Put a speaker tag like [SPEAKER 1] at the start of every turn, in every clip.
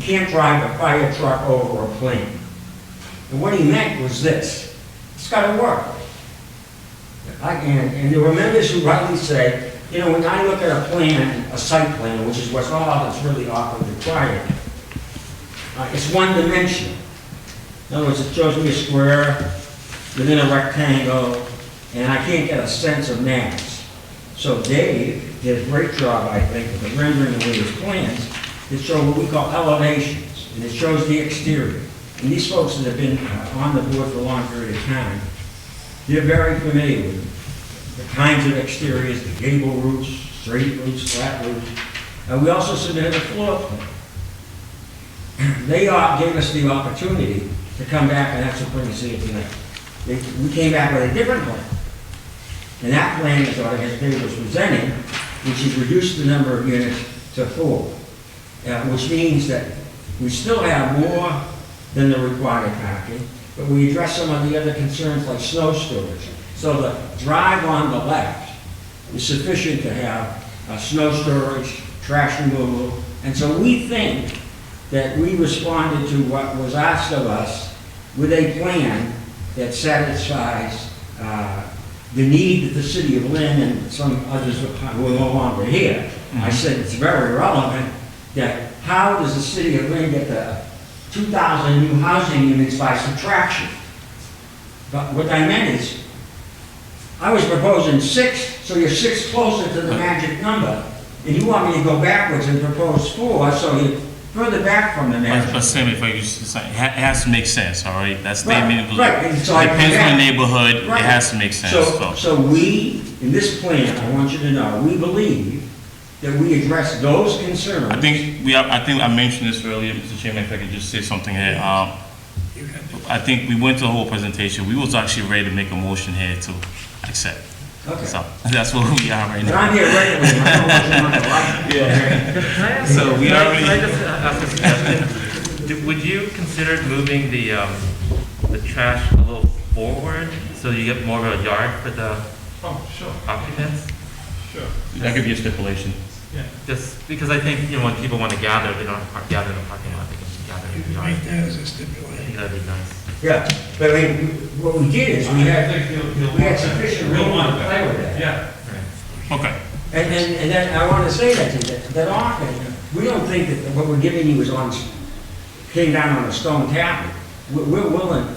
[SPEAKER 1] can't drive a fire truck over a plane. And what he meant was this, it's gotta work. I- And, and there were members who rightly say, you know, when I look at a plan, a site plan, which is what's all that's really often required, uh, it's one dimensional. In other words, it shows me a square within a rectangle, and I can't get a sense of mass. So Dave did a great job, I think, with the rendering of his plans, that show what we call elevations, and it shows the exterior. And these folks that have been uh, on the board for a long period of time, they're very familiar with the kinds of exteriors, the gable roofs, straight roofs, flat roofs. Uh, we also submitted a floor plan. They uh, gave us the opportunity to come back, and that's what we're gonna see tonight. They, we came back with a different plan. And that plan is what I guess David was presenting, which is reduce the number of units to four. Uh, which means that we still have more than the required parking, but we address some of the other concerns like snow storage. So the drive on the left is sufficient to have uh, snow storage, trash removal. And so we think that we responded to what was asked of us with a plan that satisfies uh, the need of the city of Lynn and some others who are no longer here. I said it's very relevant that how does the city of Lynn get the 2,000 new housing units by subtraction? But what I meant is, I was proposing six, so you're six closer to the magic number, and you want me to go backwards and propose four, so you're further back from the
[SPEAKER 2] But, but
[SPEAKER 1] magic.
[SPEAKER 2] Sam, if I use, it's like, it ha- it has to make sense, all right? That's the
[SPEAKER 1] Right,
[SPEAKER 2] neighborhood.
[SPEAKER 1] right, and so I
[SPEAKER 2] Depends
[SPEAKER 1] come
[SPEAKER 2] on
[SPEAKER 1] back.
[SPEAKER 2] the neighborhood, it
[SPEAKER 1] Right.
[SPEAKER 2] has to make sense,
[SPEAKER 1] So,
[SPEAKER 2] so.
[SPEAKER 1] so we, in this plan, I want you to know, we believe that we address those concerns.
[SPEAKER 2] I think we are, I think I mentioned this earlier, Mr. Chairman, if I could just say something here. Um, I think we went to the whole presentation, we was actually ready to make a motion here to accept.
[SPEAKER 1] Okay.
[SPEAKER 2] So, that's where we are right
[SPEAKER 1] But
[SPEAKER 2] now.
[SPEAKER 1] I'm here regularly, and I know what you're not gonna like.
[SPEAKER 3] Can I ask-
[SPEAKER 2] So we
[SPEAKER 3] can I-
[SPEAKER 2] already-
[SPEAKER 3] Can I just uh, ask this question? Do- Would you consider moving the, um, the trash a little forward so you get more of a yard for the
[SPEAKER 4] Oh, sure,
[SPEAKER 3] occupants?
[SPEAKER 4] sure,
[SPEAKER 2] That could be a stipulation.
[SPEAKER 4] yeah.
[SPEAKER 3] Just because I think, you know, when people want to gather, they don't park, gather in the parking lot, they can gather in
[SPEAKER 5] You
[SPEAKER 3] the
[SPEAKER 5] can
[SPEAKER 3] yard.
[SPEAKER 5] make that as a
[SPEAKER 3] I
[SPEAKER 5] stipulation.
[SPEAKER 3] think that'd be nice.
[SPEAKER 1] Yeah, but I mean, what we did is we had,
[SPEAKER 4] I think he'll- he'll
[SPEAKER 1] we
[SPEAKER 4] want that.
[SPEAKER 1] had sufficient
[SPEAKER 4] He'll
[SPEAKER 1] room
[SPEAKER 4] want
[SPEAKER 1] to play with that.
[SPEAKER 4] Yeah,
[SPEAKER 2] Okay,
[SPEAKER 1] And, and, and then I want to say that to you, that, that often, we don't think that what we're giving you is on, came down on a stone tablet. We're, we're willing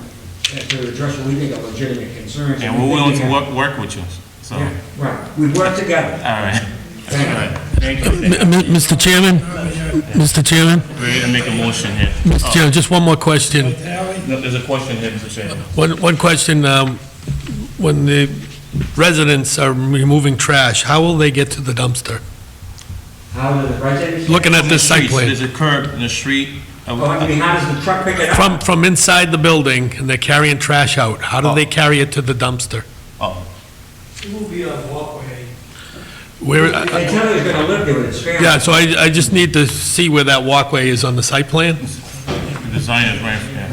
[SPEAKER 1] to address what we think are legitimate concerns.
[SPEAKER 2] and we're willing to
[SPEAKER 1] we think-
[SPEAKER 2] work, work with you, so, all
[SPEAKER 1] Yeah, Right, we work together.
[SPEAKER 2] right. All right. Thank you.
[SPEAKER 6] M- m- Mr. Chairman, Mr. Chairman,
[SPEAKER 2] Ready to make a motion here.
[SPEAKER 6] Mr. Chairman, just one more question.
[SPEAKER 5] Tally,
[SPEAKER 2] No, There's a question here, Mr. Chairman.
[SPEAKER 6] One, one question, um, when the residents are removing trash, how will they get to the dumpster?
[SPEAKER 1] How do the residents?
[SPEAKER 6] Looking at this site
[SPEAKER 2] Streets,
[SPEAKER 6] plan,
[SPEAKER 2] There's a curb in the street. I
[SPEAKER 1] Oh, I mean, how does the truck pick it up?
[SPEAKER 6] from, from inside the building, and they're carrying trash out, how do they carry it to the dumpster?
[SPEAKER 2] Oh,
[SPEAKER 4] it will be a walkway.
[SPEAKER 6] Where,
[SPEAKER 1] They
[SPEAKER 6] I- I-
[SPEAKER 1] tell you he's gonna live there with his family.
[SPEAKER 6] yeah, so I, I just need to see where that walkway is on the site plan?
[SPEAKER 2] the design is right, yeah.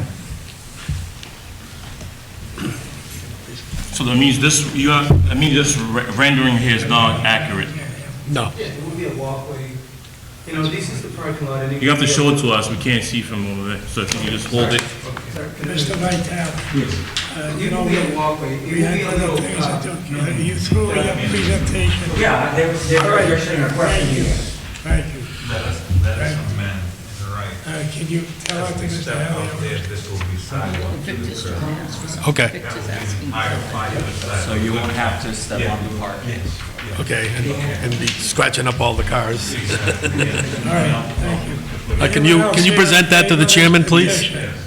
[SPEAKER 2] So that means this, you are, that means this re- rendering here is not accurate.
[SPEAKER 6] No.
[SPEAKER 7] Yeah, it would be a walkway. You know, this is the parking lot.
[SPEAKER 2] You have to show it to us, we can't see from over there, so if you just hold it.
[SPEAKER 5] Mr. Vitale, uh, you
[SPEAKER 7] It
[SPEAKER 5] know,
[SPEAKER 7] would
[SPEAKER 5] we
[SPEAKER 7] be a walkway.
[SPEAKER 5] we
[SPEAKER 7] It would
[SPEAKER 5] had
[SPEAKER 7] be a
[SPEAKER 5] other
[SPEAKER 7] little,
[SPEAKER 5] things
[SPEAKER 7] uh,
[SPEAKER 5] to do. You threw in a presentation.
[SPEAKER 1] Yeah, they, they're addressing a question here.
[SPEAKER 5] Thank you.
[SPEAKER 8] That is, that is a man, you're right.
[SPEAKER 5] Uh, Can you tell our things to
[SPEAKER 8] Step out
[SPEAKER 5] Elliot?
[SPEAKER 8] there, this will be sidewalk to the curb.
[SPEAKER 6] Okay,
[SPEAKER 8] That would be higher five-foot
[SPEAKER 9] So you won't have to step on the park.
[SPEAKER 8] Yes, yeah.
[SPEAKER 6] okay, and and be scratching up all the cars.
[SPEAKER 8] Exactly,
[SPEAKER 5] All right, thank you.
[SPEAKER 6] Uh, Can you, can you present that to the chairman, please?
[SPEAKER 8] yes,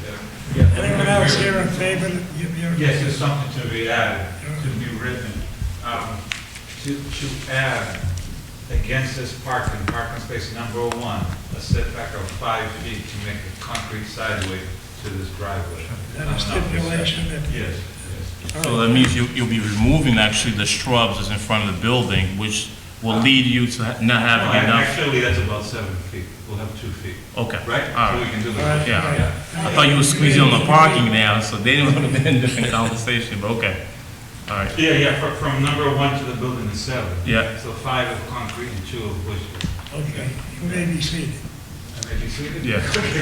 [SPEAKER 8] yeah.
[SPEAKER 5] Anyone else here in favor? You- you're-
[SPEAKER 8] Yes, there's something to be added, to be written, um, to, to add against this parking, parking space number one, a setback of five feet to make a concrete sideway to this driveway. Uh,
[SPEAKER 5] And a stipulation that-
[SPEAKER 8] Yes, yes.
[SPEAKER 2] So that means you, you'll be removing actually the shrubs that's in front of the building, which will lead you to ha- not having enough.
[SPEAKER 8] Actually, that's about seven feet, we'll have two feet,
[SPEAKER 2] Okay.
[SPEAKER 8] right?
[SPEAKER 2] All
[SPEAKER 8] So we
[SPEAKER 2] right,
[SPEAKER 8] can do
[SPEAKER 5] All right,
[SPEAKER 8] the,
[SPEAKER 2] yeah.
[SPEAKER 5] all right.
[SPEAKER 2] I thought you were squeezing on the parking now, so they didn't want to be in a different conversation, but okay. All right.
[SPEAKER 8] yeah, yeah, fro- from number one to the building is seven.
[SPEAKER 2] Yeah.
[SPEAKER 8] So five of concrete and two of wood.
[SPEAKER 5] Okay, you may be seated.
[SPEAKER 8] And if you see it-
[SPEAKER 2] Yeah.